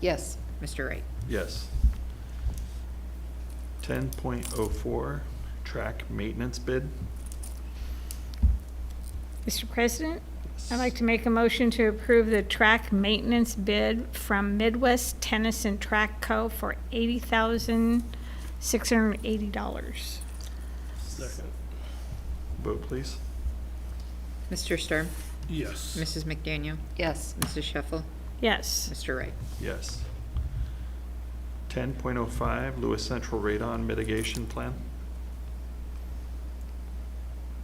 Yes. Mr. Wright. Yes. Ten point oh four, track maintenance bid. Mr. President, I'd like to make a motion to approve the track maintenance bid from Midwest Tennis and Track Co. for $80,680. Second. Vote please. Mr. Sturm. Yes. Mrs. McDaniel. Yes. Mrs. Sheffel. Yes. Mr. Wright. Yes. Ten point oh five, Lewis Central Radon Mitigation Plan.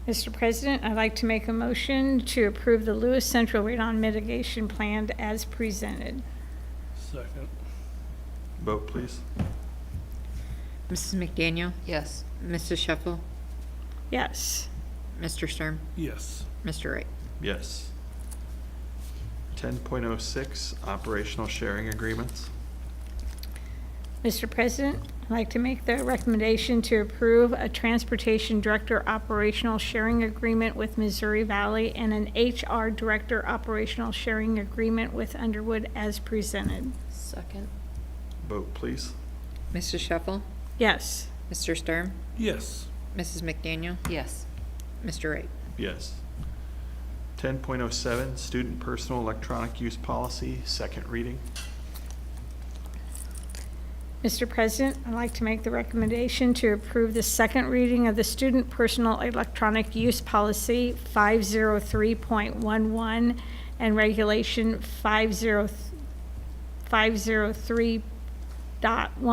Mr. President, I'd like to make a motion to approve the Lewis Central Radon Mitigation Plan as presented. Second. Vote please. Mrs. McDaniel. Yes. Mrs. Sheffel. Yes. Mr. Sturm. Yes. Mr. Wright. Yes. Ten point oh six, operational sharing agreements. Mr. President, I'd like to make the recommendation to approve a Transportation Director Operational Sharing Agreement with Missouri Valley and an HR Director Operational Sharing Agreement with Underwood as presented. Second. Vote please. Mrs. Sheffel. Yes. Mr. Sturm. Yes. Mrs. McDaniel. Yes. Mr. Wright. Yes. Ten point oh seven, Student Personal Electronic Use Policy, second reading. Mr. President, I'd like to make the recommendation to approve the second reading of the Student Personal Electronic Use Policy 503.11 and Regulation 50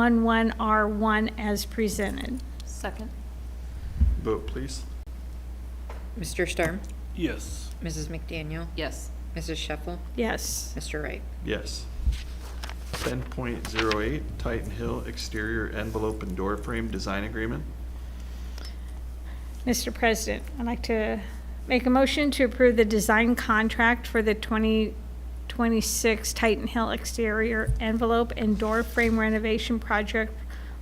503.11R1 as presented. Second. Vote please. Mr. Sturm. Yes. Mrs. McDaniel. Yes. Mrs. Sheffel. Yes. Mr. Wright. Yes. Ten point zero eight, Titan Hill Exterior Envelope and Door Frame Design Agreement. Mr. President, I'd like to make a motion to approve the design contract for the 2026 Titan Hill exterior envelope and door frame renovation project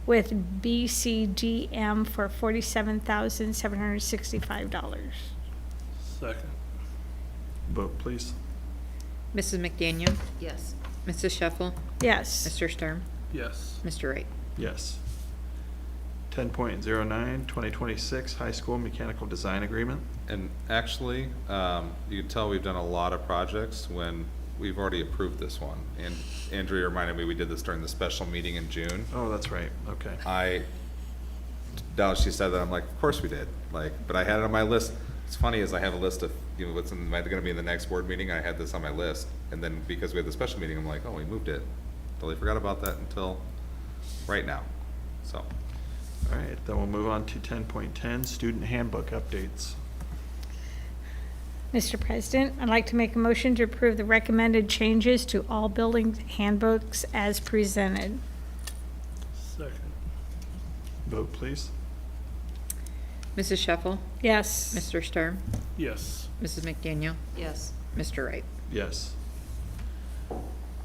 with BCGM for $47,765. Second. Vote please. Mrs. McDaniel. Yes. Mrs. Sheffel. Yes. Mr. Sturm. Yes. Mr. Wright. Yes. Ten point zero nine, twenty twenty-six High School Mechanical Design Agreement. And actually, um, you can tell we've done a lot of projects when we've already approved this one. And Andrea reminded me, we did this during the special meeting in June. Oh, that's right, okay. I, now she said that, I'm like, of course we did, like, but I had it on my list. It's funny is I have a list of, you know, what's in- gonna be in the next board meeting, I had this on my list. And then because we had the special meeting, I'm like, oh, we moved it. Totally forgot about that until right now, so. All right, then we'll move on to ten point ten, Student Handbook Updates. Mr. President, I'd like to make a motion to approve the recommended changes to all building handbooks as presented. Second. Vote please. Mrs. Sheffel. Yes. Mr. Sturm. Yes. Mrs. McDaniel. Yes. Mr. Wright. Yes.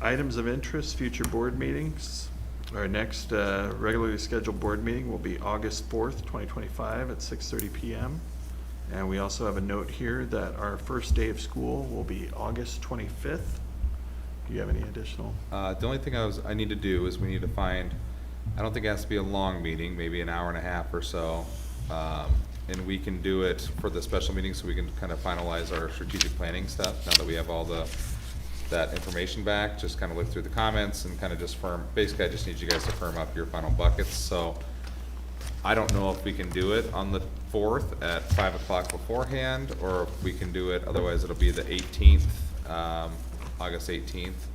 Items of interest, future board meetings. Our next uh, regularly scheduled board meeting will be August 4th, 2025 at 6:30 PM. And we also have a note here that our first day of school will be August 25th. Do you have any additional? Uh, the only thing I was, I need to do is we need to find, I don't think it has to be a long meeting, maybe an hour and a half or so. Um, and we can do it for the special meeting, so we can kind of finalize our strategic planning stuff, now that we have all the, that information back, just kind of look through the comments and kind of just firm, basically, I just need you guys to firm up your final buckets, so. I don't know if we can do it on the fourth at five o'clock beforehand, or if we can do it, otherwise it'll be the eighteenth, um, August eighteenth.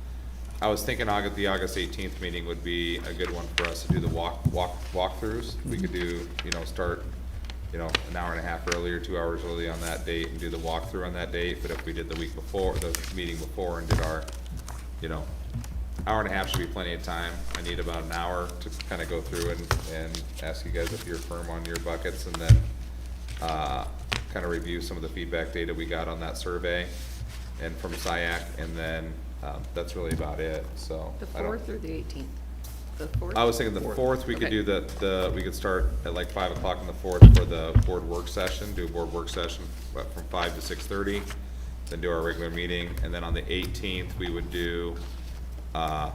I was thinking August, the August eighteenth meeting would be a good one for us to do the walk, walk, walkthroughs. We could do, you know, start, you know, an hour and a half earlier, two hours early on that date and do the walkthrough on that date, but if we did the week before, the meeting before and did our, you know, hour and a half should be plenty of time. I need about an hour to kind of go through and, and ask you guys if you're firm on your buckets and then, uh, kind of review some of the feedback data we got on that survey and from SiAC, and then, um, that's really about it, so. The I don't- fourth or the eighteenth? The fourth? I was thinking the Fourth. fourth, we could Okay. do the, the, we could start at like five o'clock on the fourth for the board work session, do a board work session uh, from five to six thirty, then do our regular meeting, and then on the eighteenth, we would do, uh,